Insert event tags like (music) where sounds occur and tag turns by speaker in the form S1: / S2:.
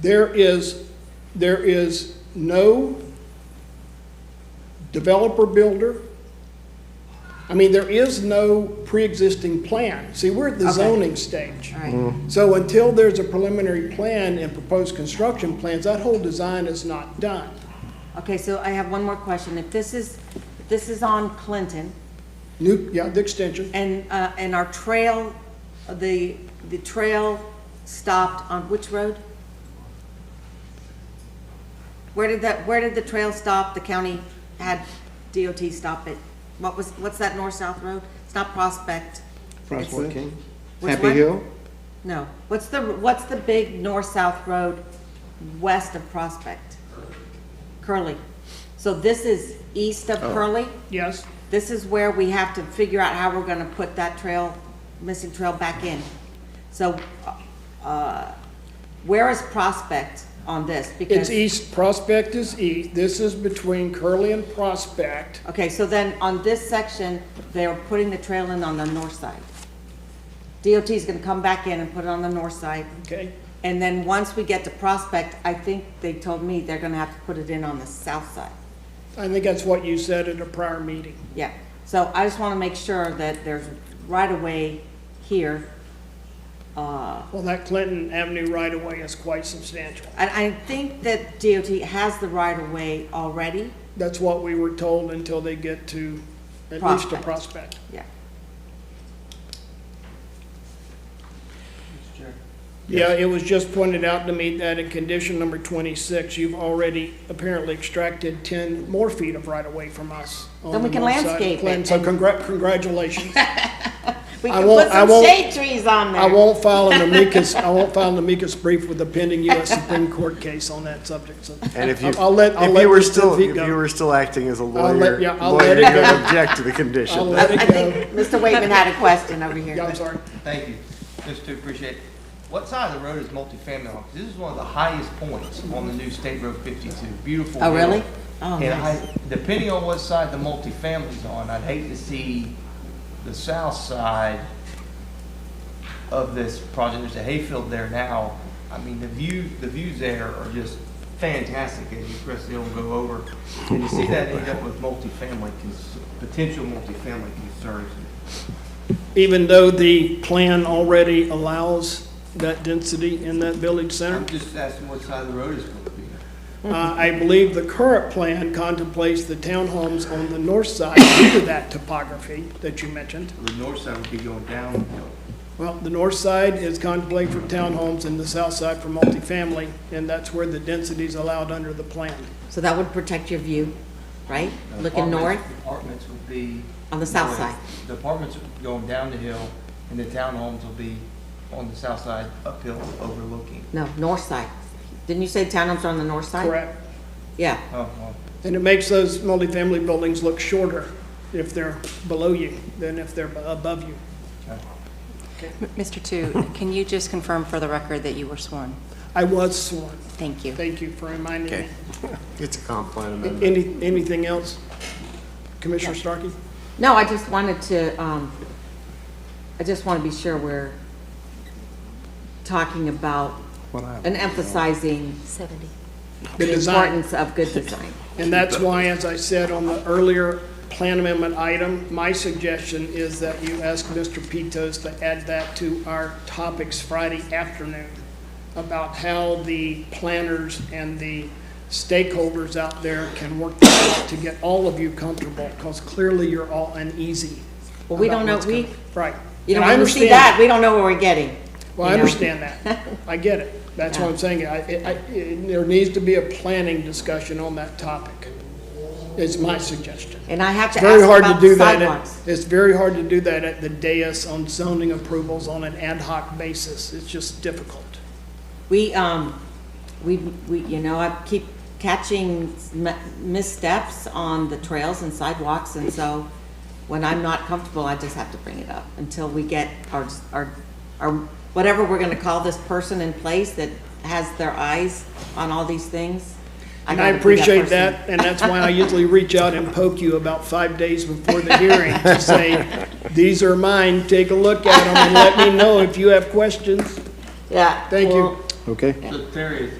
S1: There is, there is no developer builder. I mean, there is no pre-existing plan. See, we're at the
S2: Okay.
S1: zoning stage.
S2: All right,
S1: So until there's a preliminary plan and proposed construction plans, that whole design is not done.
S2: okay, so I have one more question. If this is, if this is on Clinton,
S1: New, yeah, the extension,
S2: and, uh, and our trail, the, the trail stopped on which road? Where did that, where did the trail stop? The county had DOT stop it. What was, what's that north-south road? It's not Prospect.
S3: Prospect King.
S2: Which
S3: Happy
S2: one?
S3: Hill?
S2: No. What's the, what's the big north-south road west of Prospect? Curly. So this is east of Curly?
S1: yes.
S2: This is where we have to figure out how we're gonna put that trail, missing trail back in. So, uh, where is Prospect on this?
S1: It's e-
S2: Because
S1: east, Prospect is east. This is between Curly and Prospect.
S2: Okay, so then on this section, they're putting the trail in on the north side. DOT is gonna come back in and put it on the north side.
S1: Okay.
S2: And then once we get to Prospect, I think they told me they're gonna have to put it in on the south side.
S1: I think that's what you said at a prior meeting.
S2: Yeah, so I just wanna make sure that there's right away here. Uh,
S1: Well, that Clinton Avenue right-of-way is quite substantial.
S2: And I think that DOT has the right of way already,
S1: That's what we were told until they get to, at least to
S2: Prospect.
S1: Prospect.
S2: yeah.
S1: Yeah, it was just pointed out to me that in condition number 26, you've already apparently extracted 10 more feet of right-of-way from us. on
S2: Then we
S1: the
S2: can
S1: north side of
S2: landscape it
S1: Clinton. So
S2: and-
S1: congrat, congratulations.
S2: (laughs) We
S1: I
S2: can
S1: won't-
S2: put
S1: I
S2: some
S1: won't-
S2: shade trees on
S1: I
S2: there.
S1: won't file an amicus, I won't file an amicus brief with the pending U.S. Supreme Court case on that subject, so.
S3: And if you,
S1: I'll let, I'll
S3: if
S1: let
S3: you were
S1: Mr.
S3: still,
S1: Vigo-
S3: if you were still acting as a
S1: let-
S3: lawyer,
S1: yeah, I'll
S3: lawyer,
S1: let it
S3: you would
S1: (laughs) go.
S3: object to the
S1: I'll
S3: condition.
S1: let
S2: I
S1: it go.
S2: think Mr. Waitman had a question over
S1: Yeah,
S2: here.
S1: I'm sorry.
S4: Thank you. Just to appreciate, what side of the road is multifamily on? 'Cause This is one of the highest points on the new State Road 52. Beautiful.
S2: Oh,
S4: hill.
S2: really? Oh,
S4: And I,
S2: nice.
S4: depending on what side the multifamily's on, I'd hate to see the south side of this project. There's a hayfield there now. I mean, the view, the views there are just fantastic as you press the hill and go over. And to see that end up with multifamily, cons- potential multifamily concerns.
S1: Even though the plan already allows that density in that village center?
S4: I'm just asking what side of the road is going to be.
S1: Uh, I believe the current plan contemplates the townhomes on the north side due to that topography that you mentioned.
S4: The north side would be going downhill.
S1: Well, the north side is contemplated for townhomes and the south side for multifamily, and that's where the density is allowed under the plan.
S2: So that would protect your view, right? Looking north?
S4: Apartments- Apartments would be.
S2: On the south
S4: north.
S2: side.
S4: The apartments would be going down the hill, and the townhomes will be on the south side uphill overlooking.
S2: No, north side. Didn't you say townhomes are on the north side?
S1: Correct.
S2: Yeah,
S4: Oh, well,
S1: And it makes those multifamily buildings look shorter if they're below you than if they're above you.
S4: okay.
S5: Mr. Tu, can you just confirm for the record that you were sworn?
S1: I was sworn.
S5: Thank you.
S1: Thank you for reminding me.
S3: Okay. It's a complaint amendment.
S1: Any, anything else? Commissioner Starkey?
S2: no, I just wanted to, um, I just want to be sure we're talking about
S3: What I-
S2: and emphasizing
S1: The
S2: the
S1: design.
S2: importance of good design.
S1: And that's why, as I said on the earlier plan amendment item, my suggestion is that you ask Mr. Pitos to add that to our topics Friday afternoon about how the planners and the stakeholders out there can work that out to get all of you comfortable, because clearly you're all uneasy.
S2: Well, we
S1: about
S2: don't know,
S1: what's
S2: we,
S1: coming. Right.
S2: you know,
S1: And I
S2: when we see
S1: understand
S2: that, we don't know what we're getting.
S1: well, I
S2: you know?
S1: understand that.
S2: (laughs)
S1: I get it. That's what I'm saying. I, I, I- there needs to be a planning discussion on that topic, is my suggestion.
S2: And I have
S1: It's
S2: to
S1: very
S2: ask
S1: hard to
S2: about
S1: do
S2: the
S1: that. at-
S2: sidewalks.
S1: It's very hard to do that at the dais on zoning approvals on an ad hoc basis. It's just difficult.
S2: We, um, we, we, you know, I keep catching m- missteps on the trails and sidewalks, and so when I'm not comfortable, I just have to bring it up until we get our, our, our, whatever we're gonna call this person in place that has their eyes on all these things.
S1: And I
S2: gotta be
S1: appreciate
S2: person.
S1: that, and that's why I usually reach out and poke you about five days before the hearing to say, these are mine, take a look at them and let me know if you have questions.
S2: Yeah.
S1: Thank you.
S2: well,
S3: Okay.
S4: So Terry,